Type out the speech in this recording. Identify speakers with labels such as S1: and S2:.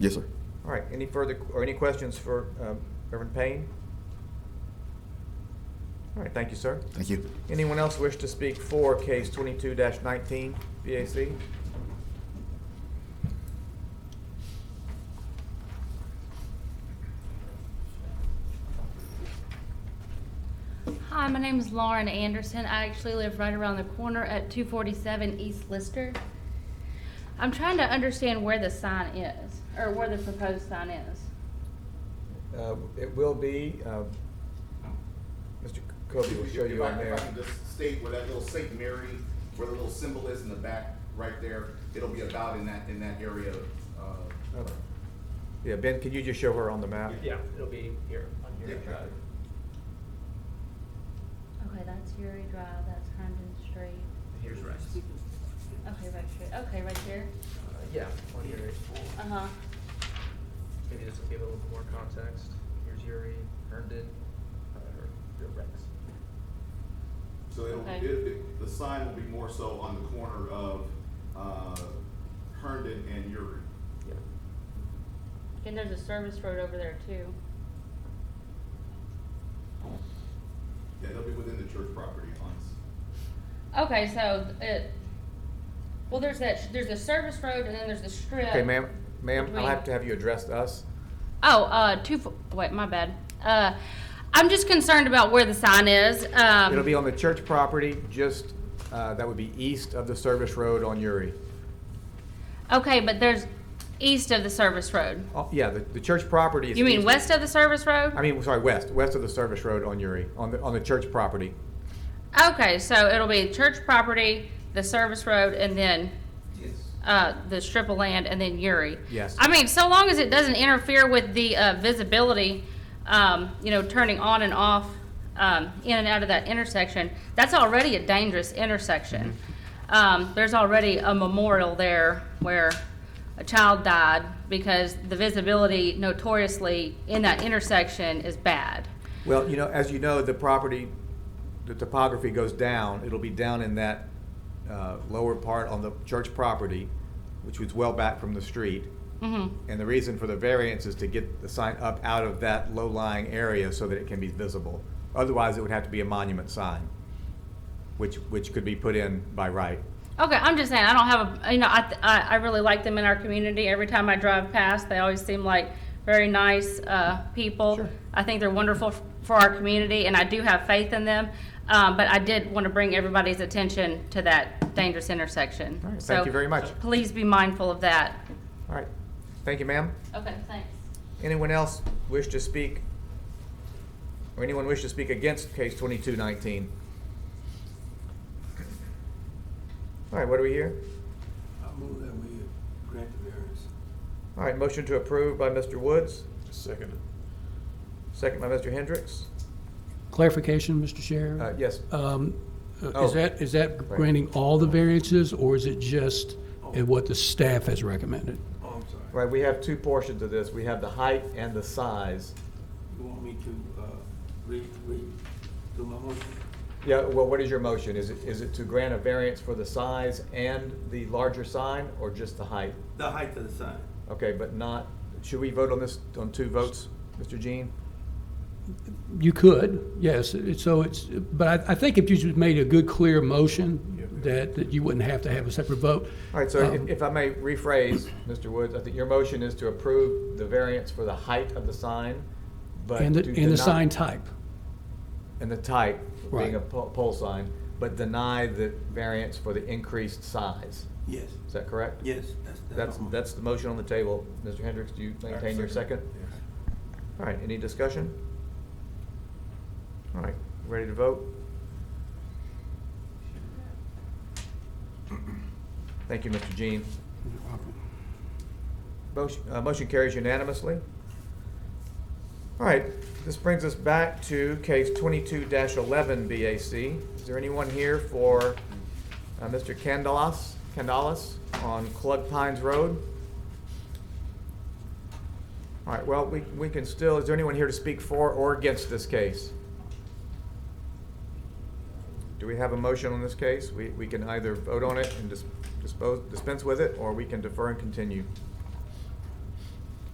S1: Yes, sir.
S2: All right, any further, or any questions for um, Reverend Payne? All right, thank you, sir.
S1: Thank you.
S2: Anyone else wish to speak for case twenty-two nineteen, BAC?
S3: Hi, my name is Lauren Anderson. I actually live right around the corner at 247 East Lister. I'm trying to understand where the sign is, or where the proposed sign is.
S2: Uh, It will be, um, Mr. Kobe will show you on
S4: If I-
S2: there.
S4: If I can just state where that little Saint Mary, where the little symbol is in the back, right there, it'll be about in that, in that area, uh,
S2: Okay. Yeah, Ben, can you just show her on the map?
S5: Yeah, it'll be here, on here.
S4: Yeah.
S3: Okay, that's Yuri Drive, that's Herndon Street.
S5: Here's Rex.
S3: Okay, right street. Okay, right there.
S5: Uh, Yeah, on Yuri.
S3: Uh-huh.
S5: Maybe just to give a little more context, here's Yuri, Herndon, uh, or or Rex.
S4: So it'll,
S3: Okay.
S4: it, it- the sign will be more so on the corner of, uh, Herndon and Uri.
S5: Yeah.
S3: And there's a service road over there too.
S4: Yeah, it'll be within the church property lines.
S3: Okay, so it, well, there's that, there's a service road and then there's the strip.
S2: Okay, ma'am, ma'am, I'll
S3: Between-
S2: have to have you address us.
S3: Oh, uh, two, fo- wait, my bad. Uh, I'm just concerned about where the sign is. Um,
S2: It'll be on the church property, just, uh, that would be east of the service road on Uri.
S3: Okay, but there's east of the service road.
S2: Oh, yeah, the, the church property is.
S3: You mean
S2: east-
S3: west of the service road?
S2: I mean, sorry, west, west of the service road on Uri, on the, on the church property.
S3: Okay, so it'll be church property, the service road, and then uh, the strip of land, and then Uri.
S2: Yes.
S3: I mean, so long as it doesn't interfere with the uh, visibility, um, you know, turning on and off, um, in and out of that intersection, that's already a dangerous intersection. Um, There's already a memorial there where a child died because the visibility notoriously in that intersection is bad.
S2: Well, you know, as you know, the property, the topography goes down. It'll be down in that uh, lower part on the church property, which was well back from the street.
S3: Mhm.
S2: And the reason for the variance is to get the sign up out of that low-lying area so that it can be visible. Otherwise, it would have to be a monument sign, which, which could be put in by right.
S3: Okay, I'm just saying, I don't have a, you know, I, th- I, I really like them in our community. Every time I drive past, they always seem like very nice, uh, people.
S2: Sure.
S3: I think they're wonderful f- for our community and I do have faith in them. Um, but I did want to bring everybody's attention to that dangerous intersection.
S2: All right,
S3: So
S2: thank you very much.
S3: Please be mindful of that.
S2: All right, thank you, ma'am.
S3: Okay, thanks.
S2: Anyone else wish to speak? Or anyone wish to speak against case twenty-two nineteen? All right, what do we hear?
S6: I move that we grant the variance.
S2: All right, motion to approve by Mr. Woods,
S6: Second.
S2: second by Mr. Hendricks.
S7: Clarification, Mr.
S2: Uh,
S7: Chair?
S2: yes,
S7: Um, uh,
S2: Oh.
S7: Is that, is that
S2: Right.
S7: granting all the variances, or is it just uh, what the staff has recommended?
S6: Oh, I'm sorry.
S2: right, we have two portions of this. We have the height and the size.
S6: You want me to, uh, re, re, do my motion?
S2: Yeah, well, what is your motion? Is it, is it to grant a variance for the size and the larger sign or just the height?
S6: The height of the sign.
S2: Okay, but not, should we vote on this, on two votes, Mr. Jean?
S7: You could, yes, it- so it's, but I, I think if you just made a good, clear motion, that, that you wouldn't have to have a separate vote.
S2: All right, so if,
S7: Um,
S2: if I may rephrase, Mr. Woods, I think your motion is to approve the variance for the height of the sign, but.
S7: And the,
S2: to
S7: and
S2: deny-
S7: the sign type,
S2: And the type, being
S7: Right.
S2: a po- pole sign, but deny the variance for the increased size.
S6: Yes,
S2: Is that correct?
S6: yes, that's,
S2: That's,
S6: that's. my-
S2: that's the motion on the table. Mr. Hendricks, do you maintain your second? All right, any discussion? All right, ready to vote? Thank you, Mr. Jean. Motion uh, motion carries unanimously. All right, this brings us back to case twenty-two eleven BAC. Is there anyone here for uh, Mr. Candelas, Candelas on Clug Pines Road? All right, well, we, we can still, is there anyone here to speak for or against this case? Do we have a motion on this case? We, we can either vote on it and dis- dispose, dispense with it, or we can defer and continue.